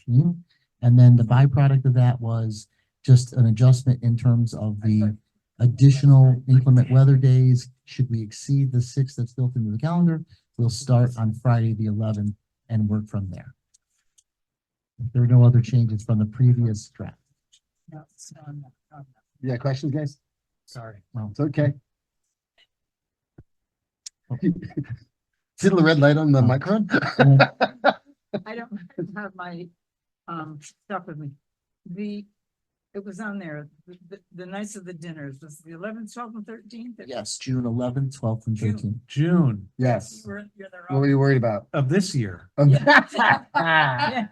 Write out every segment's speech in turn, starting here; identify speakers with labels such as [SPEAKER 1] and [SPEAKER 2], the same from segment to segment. [SPEAKER 1] eighteen. And then the byproduct of that was just an adjustment in terms of the additional inclement weather days. Should we exceed the six that's built into the calendar, we'll start on Friday, the eleventh, and work from there. There are no other changes from the previous draft.
[SPEAKER 2] No, it's not on that, on that.
[SPEAKER 3] Yeah, questions, guys?
[SPEAKER 2] Sorry.
[SPEAKER 1] Well,
[SPEAKER 3] It's okay. See the red light on the microphone?
[SPEAKER 2] I don't have my, um, stuff with me. The, it was on there, the- the, the nights of the dinners, was the eleventh, twelfth and thirteenth?
[SPEAKER 1] yes, June eleventh, twelfth, and
[SPEAKER 2] June.
[SPEAKER 1] thirteenth.
[SPEAKER 4] June
[SPEAKER 3] Yes.
[SPEAKER 2] You're, you're there
[SPEAKER 3] What were you worried about?
[SPEAKER 4] of this year.
[SPEAKER 2] Yeah.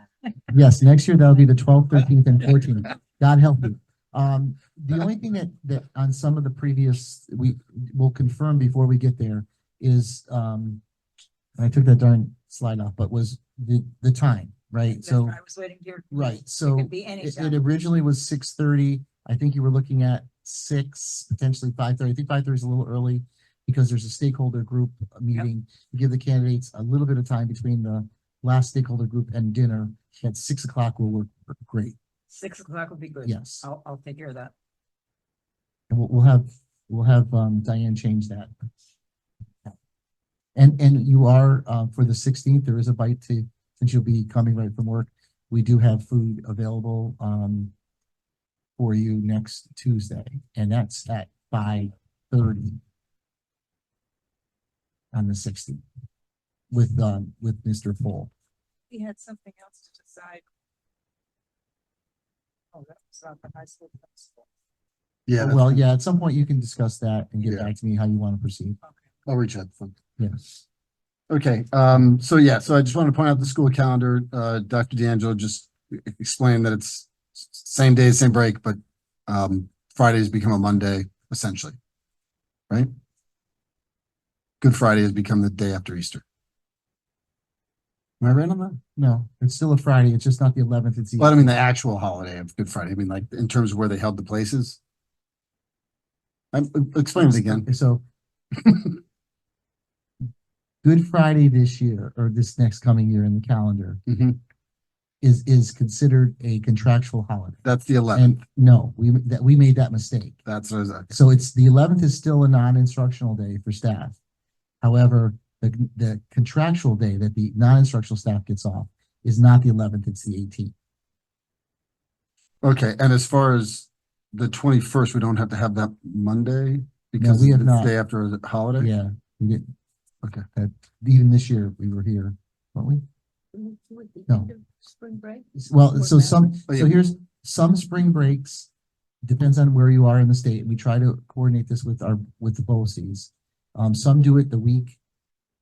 [SPEAKER 1] Yes, next year that'll be the twelfth, thirteenth, and fourteenth. God help you. Um, the only thing that, that on some of the previous, we will confirm before we get there is, um, and I took that darn slide off, but was the, the time, right?
[SPEAKER 2] That's
[SPEAKER 1] So,
[SPEAKER 2] why I was waiting here.
[SPEAKER 1] right,
[SPEAKER 2] It
[SPEAKER 1] so
[SPEAKER 2] could be any
[SPEAKER 1] it, it
[SPEAKER 2] time.
[SPEAKER 1] originally was six thirty. I think you were looking at six, potentially five thirty. I think five thirty is a little early because there's a stakeholder group meeting. You Give the candidates a little bit of time between the last stakeholder group and dinner. At six o'clock will work great.
[SPEAKER 2] Six o'clock would be good.
[SPEAKER 1] Yes.
[SPEAKER 2] I'll, I'll take care of that.
[SPEAKER 1] And we'll, we'll have, we'll have, um, Diane change that. And, and you are, uh, for the sixteenth, there is a bite to, since you'll be coming right from work, we do have food available, um, for you next Tuesday, and that's at five thirty on the sixteenth with, um, with Mr. Full.
[SPEAKER 2] We had something else to decide. Oh, that was not the high school. principal.
[SPEAKER 3] Yeah, that's-
[SPEAKER 1] Well, yeah, at some point you can discuss that and get
[SPEAKER 3] Yeah.
[SPEAKER 1] back to me how you want to proceed.
[SPEAKER 2] Okay.
[SPEAKER 3] I'll reach out. to them.
[SPEAKER 1] Yes.
[SPEAKER 3] Okay, um, so yeah, so I just want to point out the school calendar. Uh, Dr. D'Angelo just e-, explained that it's s- same day, same break, but um, Friday's become a Monday essentially. Right? Good Friday has become the day after Easter. Am I right on that?
[SPEAKER 1] No, it's still a Friday. It's just not the eleventh. It's. the
[SPEAKER 3] Well, I don't mean the actual holiday of Good Friday. I mean, like in terms of where they held the places. I'm, e-, explain it again.
[SPEAKER 1] Okay, So. Good Friday this year, or this next coming year in the calendar,
[SPEAKER 3] Mhm.
[SPEAKER 1] is, is considered a contractual holiday.
[SPEAKER 3] That's the eleventh.
[SPEAKER 1] And no, we, that, we made that mistake.
[SPEAKER 3] That's what I was, at.
[SPEAKER 1] So it's, the eleventh is still a non-instructional day for staff. However, the, the contractual day that the non-instructional staff gets off is not the eleventh, it's the eighteenth.
[SPEAKER 3] okay. And as far as the twenty-first, we don't have to have that Monday because
[SPEAKER 1] we
[SPEAKER 3] it's
[SPEAKER 1] have
[SPEAKER 3] the
[SPEAKER 1] not.
[SPEAKER 3] day after the holiday?
[SPEAKER 1] Yeah, we didn't.
[SPEAKER 3] Okay.
[SPEAKER 1] That, even this year, we were here, weren't we?
[SPEAKER 2] With the
[SPEAKER 1] No.
[SPEAKER 2] end of Spring break?
[SPEAKER 1] S- Well,
[SPEAKER 2] Or
[SPEAKER 1] so
[SPEAKER 2] that.
[SPEAKER 1] some,
[SPEAKER 3] Oh,
[SPEAKER 1] so
[SPEAKER 3] yeah.
[SPEAKER 1] here's, some spring breaks, depends on where you are in the state, we try to coordinate this with our, with the BOCES. Um, some do it the week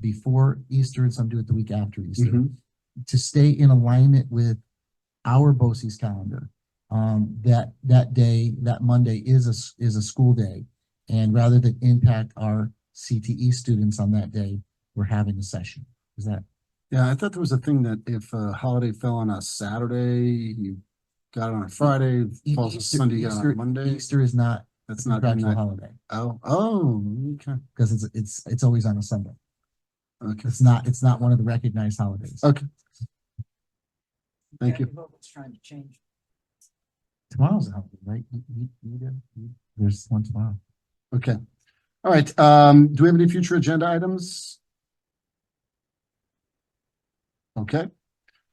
[SPEAKER 1] before Easter and some do it the week after Easter.
[SPEAKER 3] Mhm.
[SPEAKER 1] To stay in alignment with our BOCES calendar, um, that, that day, that Monday is a, s- is a school day. And rather than impact our CTE students on that day, we're having a session. Is that,
[SPEAKER 3] Yeah, I thought there was a thing that if a holiday fell on a Saturday, you got it on a Friday,
[SPEAKER 1] E-
[SPEAKER 3] falls on
[SPEAKER 1] Easter-
[SPEAKER 3] Sunday, you got it on
[SPEAKER 1] Easter-
[SPEAKER 3] a Monday.
[SPEAKER 1] Easter is not
[SPEAKER 3] That's
[SPEAKER 1] a
[SPEAKER 3] not,
[SPEAKER 1] contractual
[SPEAKER 3] not-
[SPEAKER 1] holiday.
[SPEAKER 3] oh, oh, okay,
[SPEAKER 1] because it's, it's, it's always on a Sunday.
[SPEAKER 3] okay.
[SPEAKER 1] It's not, it's not one of the recognized holidays.
[SPEAKER 3] Okay, thank you.
[SPEAKER 2] What was trying to change.
[SPEAKER 1] Tomorrow's a holiday, right? You- you- you do- you- There's one tomorrow.
[SPEAKER 3] Okay. All right, um, do we have any future agenda items? Okay.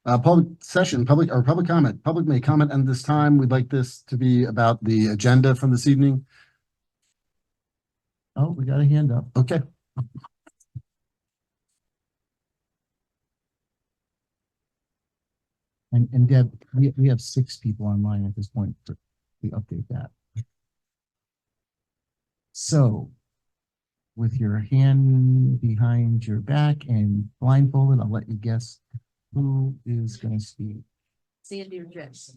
[SPEAKER 3] Uh, public session, public, or public comment, public may comment, and this time we'd like this to be about the agenda from this evening.
[SPEAKER 1] Oh, we got a hand up.
[SPEAKER 3] Okay,
[SPEAKER 1] And, and Deb, we, we have six people online at this point. but We update that. So with your hand behind your back and blindfolded, I'll let you guess who is going to speak.
[SPEAKER 2] Sandy or Jess?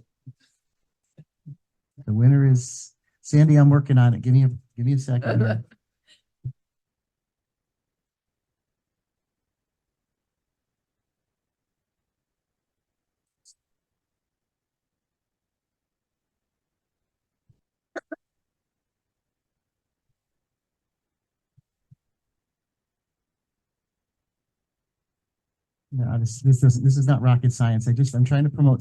[SPEAKER 1] The winner is Sandy. I'm working on it. Give me a, give me a second. here. No, this, this doesn't, this is not rocket science. I just, I'm trying to promote